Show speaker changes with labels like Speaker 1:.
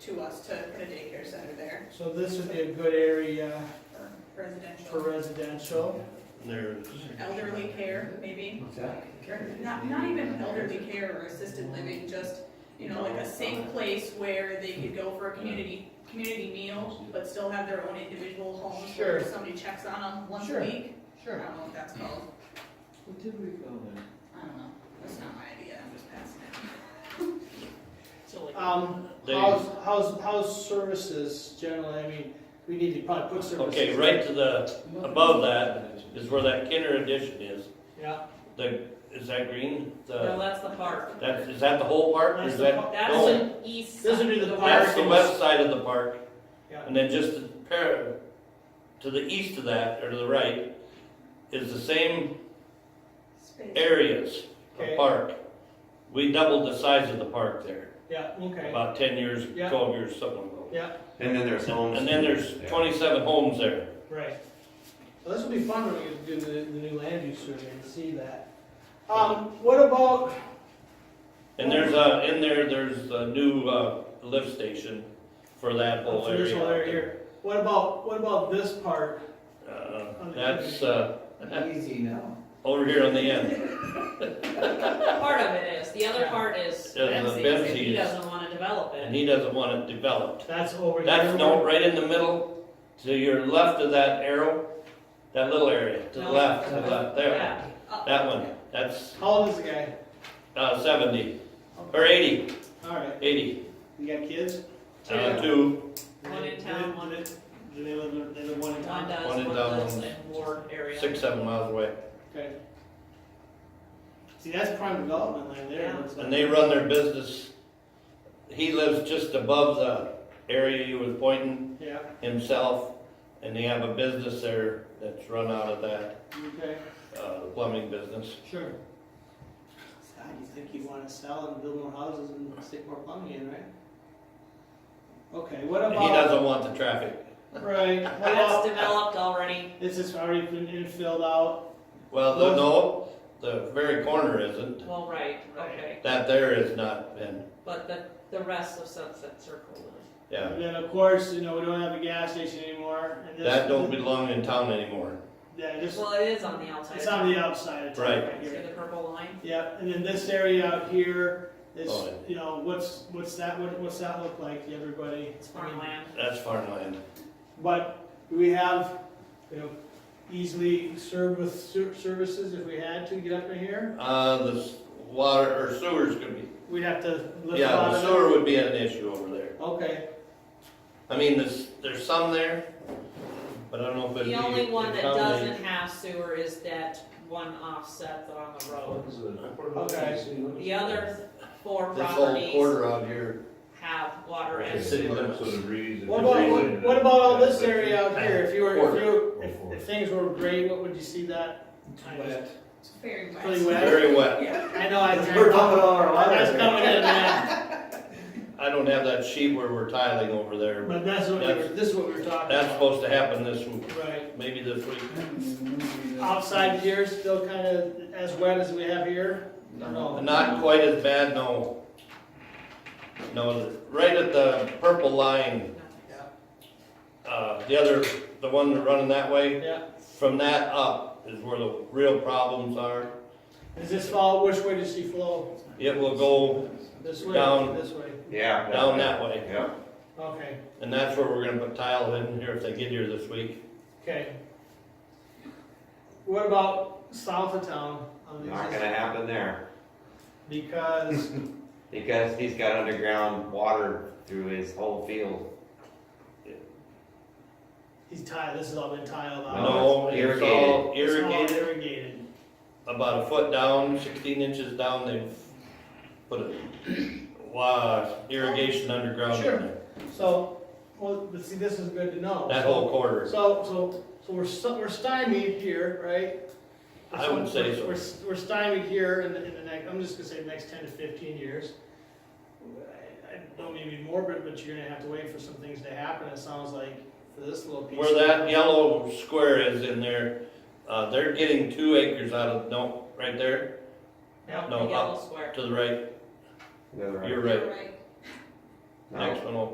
Speaker 1: to us to put a daycare center there,
Speaker 2: So this would be a good area
Speaker 1: for
Speaker 2: for
Speaker 1: residential,
Speaker 2: residential.
Speaker 3: There's.
Speaker 1: elderly care, maybe.
Speaker 4: What's that?
Speaker 1: Or Not, not even elderly care or assisted living, just, you know, like a safe place where they could go for a community, community meal, but still have their own individual homes where
Speaker 2: Sure.
Speaker 1: somebody checks on them once a
Speaker 2: Sure.
Speaker 1: week. I
Speaker 2: Sure.
Speaker 1: don't know what that's called,
Speaker 4: What did we go there?
Speaker 1: I don't know, that's not my idea, I'm just passing it.
Speaker 5: So like,
Speaker 2: Um, how's, how's, how's services generally, I mean, we need to probably put services.
Speaker 3: Okay, right to the, Above that is where that Kinder addition is.
Speaker 2: Yeah,
Speaker 3: The, is that green?
Speaker 5: no,
Speaker 3: The,
Speaker 5: that's the park.
Speaker 3: that's, is that the whole park?
Speaker 2: That's
Speaker 3: Is
Speaker 2: the
Speaker 3: that?
Speaker 2: park.
Speaker 5: That's
Speaker 3: no,
Speaker 5: an east.
Speaker 2: Those would be
Speaker 5: side.
Speaker 2: the
Speaker 3: That's the
Speaker 2: park.
Speaker 3: west side of the park.
Speaker 2: Yeah.
Speaker 3: And then just to pair, to the east of that, or to the right, is the same
Speaker 1: Space.
Speaker 3: areas
Speaker 2: Okay.
Speaker 3: of park. We doubled the size of the park there,
Speaker 2: yeah, okay,
Speaker 3: about ten years,
Speaker 2: Yeah.
Speaker 3: twelve years, something like
Speaker 2: yeah,
Speaker 4: And then there's
Speaker 3: that.
Speaker 4: homes.
Speaker 3: And then there's
Speaker 4: Yeah.
Speaker 3: twenty-seven homes there.
Speaker 2: right. Well, this will be fun when we do the, the new land use survey and see that. Um, what about,
Speaker 3: And there's a, in there, there's a new uh, lift station for that whole
Speaker 2: for this
Speaker 3: area.
Speaker 2: whole area here, what about, what about this part?
Speaker 3: Uh, That's, uh,
Speaker 4: Easy now.
Speaker 3: over here on the end.
Speaker 5: Part of it is, the other part is
Speaker 3: Yeah, the
Speaker 5: Bensie's, and he
Speaker 3: Bensie's.
Speaker 5: doesn't wanna develop
Speaker 3: And
Speaker 5: it.
Speaker 3: he doesn't want it developed.
Speaker 2: That's over here.
Speaker 3: That's no, right in the middle, to your left of that arrow, that little area, to the
Speaker 5: No.
Speaker 3: left, to the left, there.
Speaker 5: Yeah,
Speaker 1: Up.
Speaker 3: That one, that's
Speaker 2: How old is the guy?
Speaker 3: uh, seventy, or eighty.
Speaker 2: Alright,
Speaker 3: 80.
Speaker 2: you got kids?
Speaker 3: Uh, two,
Speaker 5: One in
Speaker 2: Do they-
Speaker 5: town,
Speaker 2: do
Speaker 5: one-
Speaker 2: they- Do they live, they live one in
Speaker 5: one
Speaker 2: town?
Speaker 5: does,
Speaker 3: One
Speaker 5: one
Speaker 3: and done,
Speaker 5: lives
Speaker 3: one-
Speaker 5: in Ward area.
Speaker 3: six, seven miles away.
Speaker 2: Okay. See, that's prime development land there.
Speaker 5: Yeah.
Speaker 2: looks like.
Speaker 3: And they run their business, he lives just above the area you was pointing
Speaker 2: Yeah,
Speaker 3: himself, and they have a business there that's run out of that,
Speaker 2: okay,
Speaker 3: uh, plumbing business.
Speaker 2: sure. God, you think you wanna sell and build more houses and stick more plumbing in, right? Okay, what
Speaker 3: And he
Speaker 2: about,
Speaker 3: doesn't want the traffic.
Speaker 2: right, what
Speaker 5: That's
Speaker 2: about,
Speaker 5: developed already.
Speaker 2: this is already been infilled out,
Speaker 3: Well, the- no, the very corner isn't,
Speaker 5: Well, right,
Speaker 2: Right.
Speaker 5: okay.
Speaker 3: that there has not been,
Speaker 5: But the, the rest of Sunset Circle is.
Speaker 3: yeah.
Speaker 2: and then of course, you know, we don't have a gas station anymore, and this.
Speaker 3: That don't belong in town anymore.
Speaker 2: Yeah, just,
Speaker 5: Well, it is on the outside.
Speaker 2: it's on the outside of town
Speaker 3: Right.
Speaker 2: right
Speaker 5: See
Speaker 2: here.
Speaker 5: the purple line?
Speaker 2: Yeah, and then this area out here is,
Speaker 3: Oh,
Speaker 2: you know, what's, what's that, what, what's that look like to everybody?
Speaker 5: It's farmland.
Speaker 3: That's farmland.
Speaker 2: But we have, you know, easily served with ser- services if we had to get up in here.
Speaker 3: Uh, the s- water, or sewers could be,
Speaker 2: We'd have to lift a
Speaker 3: yeah,
Speaker 2: lot
Speaker 3: the
Speaker 2: of.
Speaker 3: sewer would be an issue over there.
Speaker 2: Okay,
Speaker 3: I mean, there's, there's some there, but I don't know if it'd be.
Speaker 5: The only one that
Speaker 3: accommodated.
Speaker 5: doesn't have sewer is that one offset on the road. The other four
Speaker 3: This whole
Speaker 5: properties
Speaker 3: quarter out here,
Speaker 5: have water
Speaker 3: The
Speaker 5: and
Speaker 3: city
Speaker 5: sewer.
Speaker 3: limits.
Speaker 2: what about, what- what about all this area out here? If you were, if you, were- if,
Speaker 4: Quarter.
Speaker 2: if things were great, what would you see that?
Speaker 1: It's very wet.
Speaker 2: Pretty wet.
Speaker 3: very wet.
Speaker 1: Yeah.
Speaker 2: I know, I.
Speaker 4: We're dumping all our water
Speaker 2: That's
Speaker 4: there.
Speaker 2: coming in, man.
Speaker 3: I don't have that sheet where we're tiling over there, but
Speaker 2: But that's what, we were-
Speaker 3: That's-
Speaker 2: this is what we were talking
Speaker 3: that's
Speaker 2: about.
Speaker 3: supposed to happen this, w-
Speaker 2: Right.
Speaker 3: maybe this week.
Speaker 2: Outside here, still kind of as wet as we have here? No.
Speaker 3: Not quite as bad, no. No, the- right at the purple line, uh, the other, the one that running that way,
Speaker 2: Yeah.
Speaker 3: from that up is where the real problems are.
Speaker 2: Does this fall, which way does she flow?
Speaker 3: It will go
Speaker 2: This way,
Speaker 3: Down.
Speaker 2: this way?
Speaker 4: Yeah.
Speaker 3: down that way,
Speaker 4: Yeah.
Speaker 2: Okay,
Speaker 3: and that's where we're gonna put tile in here if they get here this week.
Speaker 2: okay. What about south of town? on the
Speaker 6: Not gonna happen there,
Speaker 2: Because,
Speaker 6: because he's got underground water through his whole field.
Speaker 2: he's tiled, this has all been tiled out.
Speaker 3: No, it's all
Speaker 2: Oh, It's all
Speaker 3: irrigated,
Speaker 2: Irrigated.
Speaker 3: about a foot down, sixteen inches down, they've put a, wow, irrigation underground in
Speaker 2: Sure.
Speaker 3: there,
Speaker 2: So, well, but see, this is good to know.
Speaker 3: that whole quarter.
Speaker 2: So, so, so we're, st- we're stymied here, right?
Speaker 3: I would say so.
Speaker 2: We're, we're stymied here in the, in the next, I'm just gonna say the next ten to fifteen years. I I don't mean to be morbid, but you're gonna have to wait for some things to happen, it sounds like, for this little piece.
Speaker 3: Where that yellow square is in there, uh, they're getting two acres out of, no, right there,
Speaker 5: Now,
Speaker 3: No,
Speaker 5: the yellow square.
Speaker 3: to the right,
Speaker 6: The other-
Speaker 3: you're right,
Speaker 1: Right.
Speaker 6: No.
Speaker 3: next one over.